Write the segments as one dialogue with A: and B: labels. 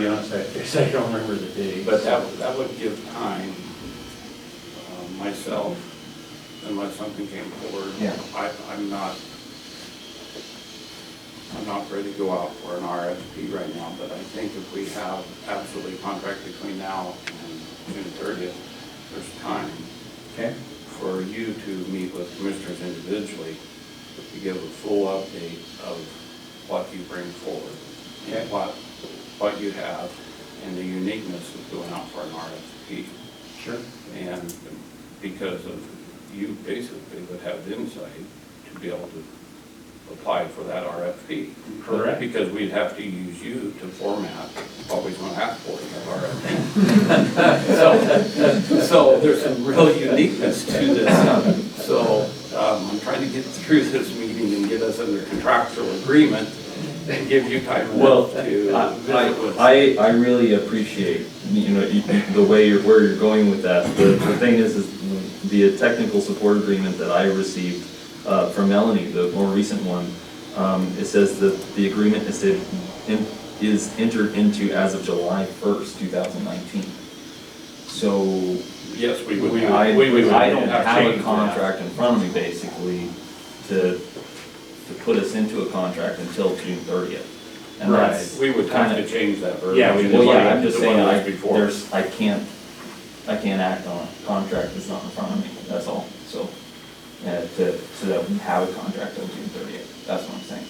A: be honest, I guess I don't remember the date.
B: But that, that would give time, um, myself, unless something came forward.
C: Yeah.
B: I, I'm not, I'm not ready to go out for an RFP right now, but I think if we have absolutely contract between now and June thirtieth, there's time
C: Okay.
B: for you to meet with commissioners individually to give a full update of what you bring forward, and what, what you have, and the uniqueness of going out for an RFP.
C: Sure.
B: And because of, you basically would have the insight to be able to apply for that RFP.
A: Correct.
B: Because we'd have to use you to format what we want to ask for in that RFP. So, so there's some real uniqueness to this. uh, So um, I'm trying to get through this meeting and get us under contractual agreement and give you time
D: Well,
B: enough to
D: I-
B: visit with.
D: I, I really appreciate, you know, you- the way you're, where you're going with that. The, the thing is, is the technical support agreement that I received uh, from Melanie, the more recent one, um, it says that the agreement is, to- in- is entered into as of July first, two thousand nineteen. So
B: Yes, we would.
D: I,
B: we would-
D: I don't have a
B: change that.
D: contract in front of me basically to, to put us into a contract until June thirtieth. And
A: Right.
D: that's
B: We would have
D: kinda-
B: to change that verbiage.
A: Yeah, we
B: and
D: well,
B: like
D: yeah, I'm just
B: the one
D: saying,
B: that
D: I,
B: was before.
D: there's, I can't, I can't act on a contract that's not in front of me, that's all, so. Uh, to, so that we have a contract on June thirtieth, that's what I'm saying.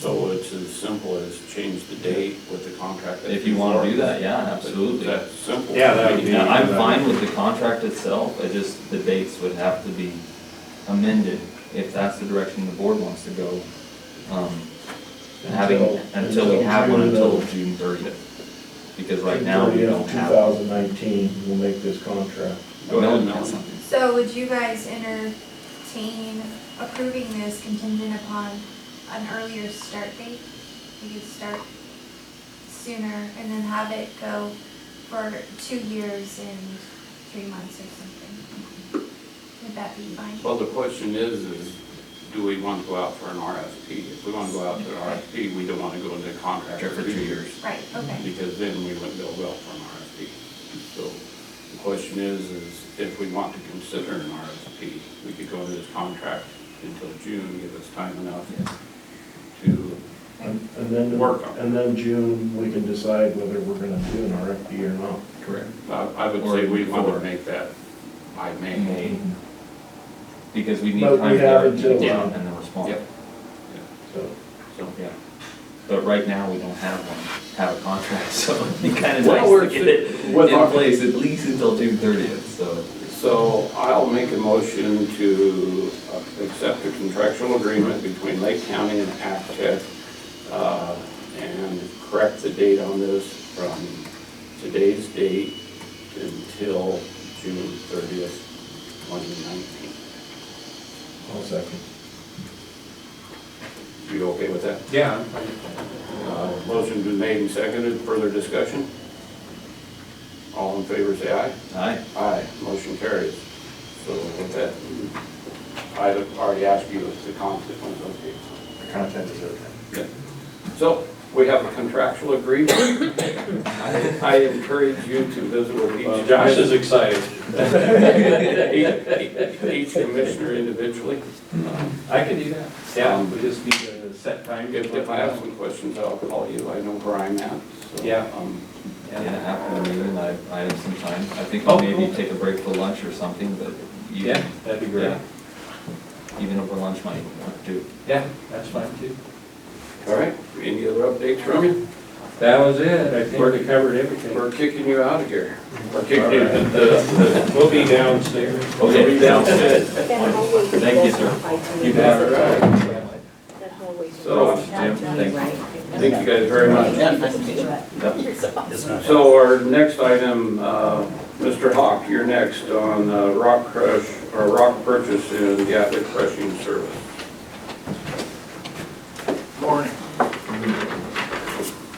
B: So it's as simple as change the date with the contract. that's
D: If you wanna do
B: before.
D: that, yeah, absolutely.
B: That's simple.
A: Yeah, that would be-
D: Yeah, I'm fine with the contract itself, I just, the dates would have to be amended if that's the direction the board wants to go. Um, Having, until we have one until June thirtieth, because right now we don't have. one.
E: 2019, we'll make this contract.
B: Go ahead,
D: Melanie
B: Melanie.
D: has something.
F: So would you guys entertain approving this contingent upon an earlier start date? We could start sooner and then have it go for two years and three months or something. Would that be fine?
B: Well, the question is, is do we want to go out for an RFP? If we want to go out to an RFP, we don't want to go into a contract for two years.
F: Right, okay.
B: Because then we wouldn't go well for an RFP. So the question is, is if we want to consider an RFP, we could go into this contract until June, give us time enough to,
E: And and then,
B: Work on it.
E: and then June, we can decide whether we're gonna do an RFP or not.
D: Correct.
B: I I would say we want
D: Or-
B: to make that by May.
D: May, because we need
E: But we
D: time to
E: have
D: get
E: until,
D: down
E: uh,
D: and then respond.
B: Yep.
E: So,
B: So,
D: Yeah. But right now, we don't have one, have a contract, so it'd be kind of
B: Well,
D: nice
B: we're-
D: to get it
B: with our-
D: in place at least until June thirtieth, so.
B: So I'll make a motion to uh, accept a contractual agreement between Lake County and Actech uh, and correct the date on this from today's date until June 30th, 2019.
E: I'll second.
B: You okay with that?
A: Yeah.
B: Uh, Motion been made and seconded. Further discussion? All in favor, say aye.
D: Aye.
B: Aye, motion carries. So with that, I already asked you if the consequence, okay.
E: The content is okay.
B: Yeah. So we have a contractual agreement. I I encourage you to visit with each.
A: Josh is excited.
B: Each each commissioner individually.
A: I can do that. Yeah, we just need a set time.
B: If if I have some questions, I'll call you. I know where I'm at. so,
A: Yeah.
B: um,
D: Yeah, after the meeting, I, I have some time, I think
A: Oh,
D: maybe
A: cool.
D: take a break for lunch or something, but you,
A: Yeah, that'd be great.
D: yeah. Even over lunch might work too.
A: Yeah, that's fine too.
B: All right, any other updates from you?
A: That was it. I think we covered everything.
B: We're kicking you out of here. We're kicking you.
A: We'll be downstairs.
D: Okay,
G: That hallway was
D: Thank you, sir.
G: also
A: You
G: by
A: got
G: doing-
A: it right.
G: That hallway was
B: So,
G: also by
D: Jim,
G: doing
D: thank you.
G: right.
B: Thank you guys very much.
G: Yeah, nice to meet you.
D: Yep.
G: You're so awesome.
B: So our next item, uh, Mr. Hawk, you're next on uh, rock crush, or rock purchase and Gatwick crushing service.
H: Morning.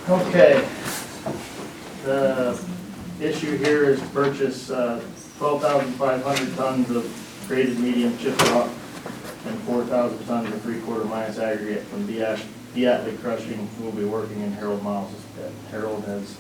H: Okay. The issue here is purchase uh, 12,500 tons of graded medium chip rock and 4,000 tons of three-quarter minus aggregate from B. Ash the Atlee crushing will be working in Harold Miles' pit. Harold has